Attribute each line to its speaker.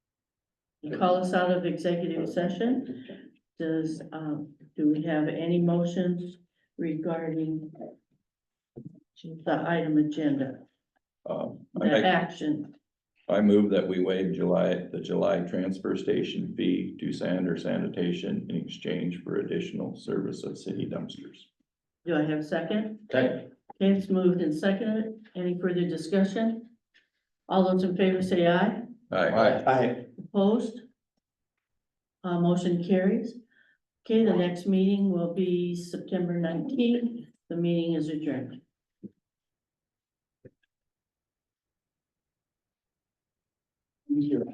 Speaker 1: call us out of executive session. Does, um, do we have any motions regarding the item agenda,
Speaker 2: Um, I
Speaker 1: the
Speaker 2: make-
Speaker 1: action?
Speaker 2: I move that we waive July, the July transfer station fee to Sander Sanitation in exchange for additional service of city dumpsters.
Speaker 1: Do I have a second?
Speaker 2: Okay.
Speaker 1: Okay, it's moved and seconded. Any further discussion? All those in favor say aye.
Speaker 2: Aye.
Speaker 1: Opposed? Uh, motion carries. Okay, the next meeting will be September nineteenth. The meeting is adjourned.